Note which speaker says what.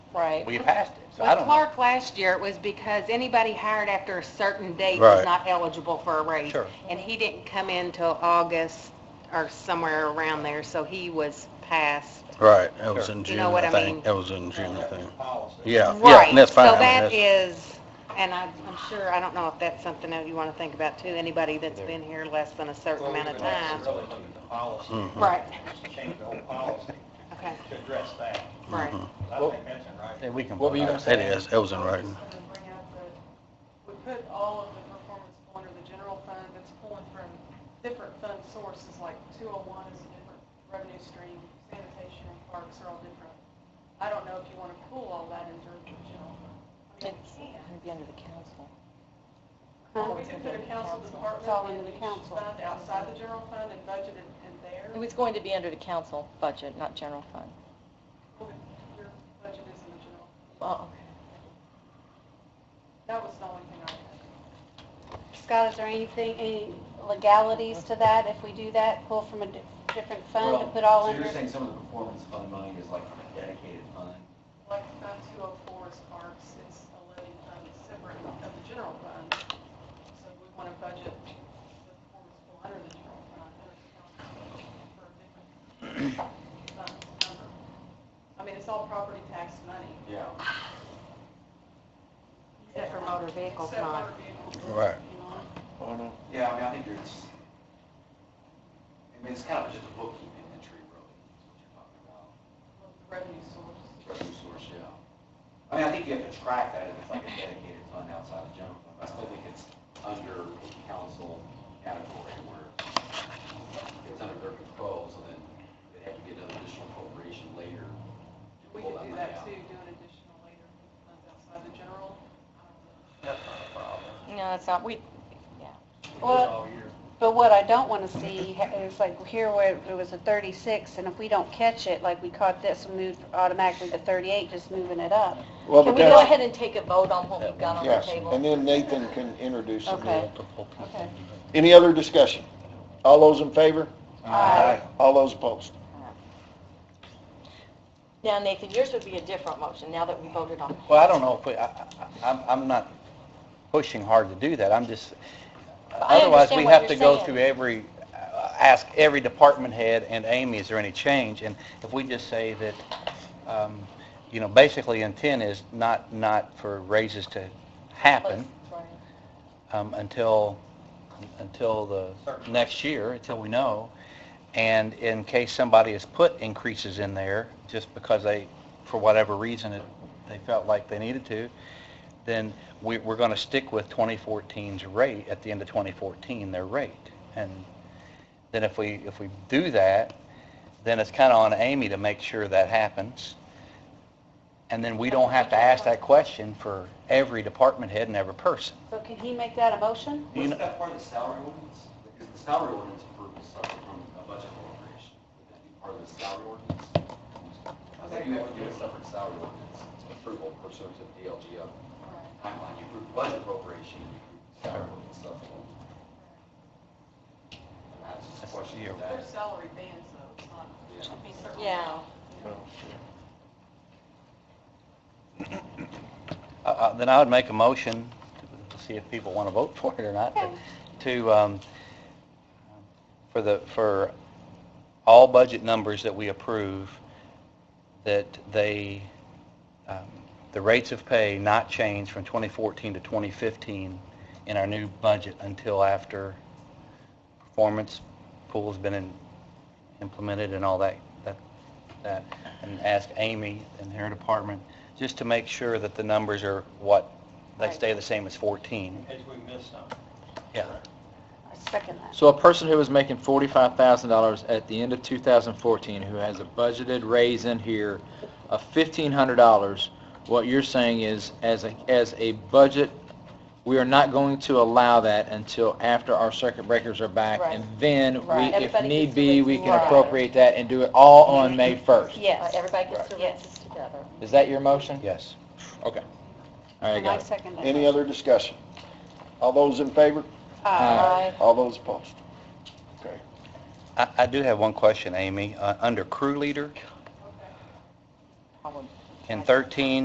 Speaker 1: Right.
Speaker 2: We passed it, so I
Speaker 1: With
Speaker 2: don't know.
Speaker 1: Clark last year, it was because anybody hired after a certain date
Speaker 3: Right.
Speaker 1: was not eligible for a raise.
Speaker 2: Sure.
Speaker 1: And he didn't come in till August or somewhere around there, so he was passed.
Speaker 3: Right, that was in
Speaker 1: You
Speaker 3: June,
Speaker 1: know what
Speaker 3: I
Speaker 1: I
Speaker 3: think.
Speaker 1: mean?
Speaker 3: That was in June, I think.
Speaker 4: Policy.
Speaker 3: Yeah, yeah, and that's fine. I
Speaker 1: Right, so
Speaker 3: mean,
Speaker 1: that
Speaker 3: that's-
Speaker 1: is, and I- I'm sure, I don't know if that's something that you want to think about too, anybody that's been here less than a certain amount of time.
Speaker 4: Really look at the policy.
Speaker 3: Mhm.
Speaker 1: Right,
Speaker 4: Change the whole policy
Speaker 1: okay,
Speaker 4: to address that.
Speaker 1: right.
Speaker 3: Mhm.
Speaker 4: I think that's in
Speaker 2: Yeah,
Speaker 4: right.
Speaker 2: we can.
Speaker 4: What were you
Speaker 2: vote on
Speaker 4: gonna
Speaker 3: It is, that was in writing.
Speaker 5: I was gonna bring up that we put all of the performance pool under the general fund, it's pulling from different fund sources, like two oh one is a different revenue stream, sanitation and parks are all different. I don't know if you wanna pool all that into the general fund. I mean, we can.
Speaker 6: It'd be under the council.
Speaker 1: Huh?
Speaker 5: We could put a council
Speaker 1: It's
Speaker 5: department
Speaker 1: all under the
Speaker 5: in each
Speaker 1: council.
Speaker 5: fund outside the general fund and budget it in there.
Speaker 6: It was going to be under the council budget, not general fund.
Speaker 5: Your budget is in the general.
Speaker 6: Oh,
Speaker 5: That was the only thing I had.
Speaker 7: Scott, is there anything, any legalities to that if we do that, pull from a di- different fund to
Speaker 8: Well,
Speaker 7: put all
Speaker 8: so
Speaker 7: under?
Speaker 8: you're saying some of the performance fund money is like a dedicated fund?
Speaker 5: Like Fund 204 is parks, it's a living fund separate from the general fund. So we want to budget the performance pool under the general fund, under the council for a different fund number. I mean, it's all property tax money.
Speaker 8: Yeah.
Speaker 1: Except for motor vehicles,
Speaker 5: Except
Speaker 1: not.
Speaker 5: motor vehicles.
Speaker 3: Right.
Speaker 8: Oh, Yeah, I mean, I think there's, I mean, it's kind of just a bookkeeping entry, really, is what you're talking about.
Speaker 5: Revenue source.
Speaker 8: revenue source, yeah. I mean, I think you have to track that if it's like a dedicated fund outside of general fund, but I still think it's under council category where it's under their control, so then they'd have to get an additional appropriation later to
Speaker 5: We
Speaker 8: pull
Speaker 5: could
Speaker 8: that
Speaker 5: do that
Speaker 8: money out.
Speaker 5: too, do an additional later funds outside the general. I don't know.
Speaker 8: That's not a problem.
Speaker 6: okay. No, it's not, we,
Speaker 8: It goes
Speaker 7: Well-
Speaker 8: all year.
Speaker 7: But what I don't want to see ha- is like here where it was a 36, and if we don't catch it, like we caught this, and moved automatically to 38, just moving it up.
Speaker 9: Well,
Speaker 6: can
Speaker 9: but
Speaker 6: we go
Speaker 9: that's,
Speaker 6: ahead and take a vote on what we've got on the
Speaker 9: yes, and
Speaker 6: table?
Speaker 9: then Nathan can introduce it.
Speaker 7: Okay.
Speaker 3: Okay.
Speaker 9: Any other discussion? All those in favor?
Speaker 7: Aye.
Speaker 9: All those opposed?
Speaker 6: Now, Nathan, yours would be a different motion now that we voted on.
Speaker 2: Well, I don't know if we, I, I- I'm, I'm not pushing hard to do that, I'm just, otherwise we
Speaker 6: understand what
Speaker 2: have to
Speaker 6: you're
Speaker 2: go
Speaker 6: saying.
Speaker 2: through every, uh, ask every department head and Amy, is there any change? And if we just say that, um, you know, basically intent is not, not for raises to happen um, until, until the next year, until we know. And in case somebody has put increases in there, just because they, for whatever reason, it- they felt like they needed to, then we, we're going to stick with 2014's rate, at the end of 2014, their rate. And then if we, if we do that, then it's kind of on Amy to make sure that happens. And then we don't have to ask that question for every department head and every person.
Speaker 7: So can he make that a motion?
Speaker 2: You know-
Speaker 8: Wasn't that part of the salary ordinance? Because the salary ordinance approval started from a budget appropriation. Would that be part of the salary ordinance? I think you have to do a separate salary ordinance approval pursuant to the DLGO timeline. You approve budget appropriation, you approve salary ordinance supplemental. And That's just a question of
Speaker 5: Their
Speaker 8: that.
Speaker 5: salary bands though, it's not,
Speaker 8: Yeah.
Speaker 5: I mean, certainly.
Speaker 6: Yeah.
Speaker 2: Uh, uh, Then I would make a motion, to see if people want to vote for it or not, but to, um, for the, for all budget numbers that we approve, that they, um, the rates of pay not change from 2014 to 2015 in our new budget until after performance pool's been in- implemented and all that, that, that, and ask Amy and her department, just to make sure that the numbers are what, they stay the same as 14.
Speaker 4: As we missed something.
Speaker 2: Yeah.
Speaker 7: I second that.
Speaker 10: So a person who was making forty-five thousand dollars at the end of two thousand fourteen, who has a budgeted raise in here of fifteen hundred dollars, what you're saying is, as a, as a budget, we are not going to allow that until after our circuit breakers are back, and then we,
Speaker 6: Right.
Speaker 10: if
Speaker 7: Everybody
Speaker 10: need
Speaker 7: gets
Speaker 10: be,
Speaker 7: to
Speaker 10: we can
Speaker 6: raise-
Speaker 10: appropriate that and do it all on May first.
Speaker 7: Yes.
Speaker 6: Uh, Everybody gets their
Speaker 7: Yes.
Speaker 6: raises together.
Speaker 10: Is that your motion?
Speaker 2: Yes.
Speaker 10: Okay. All right,
Speaker 7: And I
Speaker 10: guys.
Speaker 7: second that.
Speaker 9: Any other discussion? All those in favor?
Speaker 6: Aye.
Speaker 9: All those opposed? Okay.
Speaker 2: I, I do have one question, Amy. Uh, Under crew leader,
Speaker 6: Probably.
Speaker 2: in 13,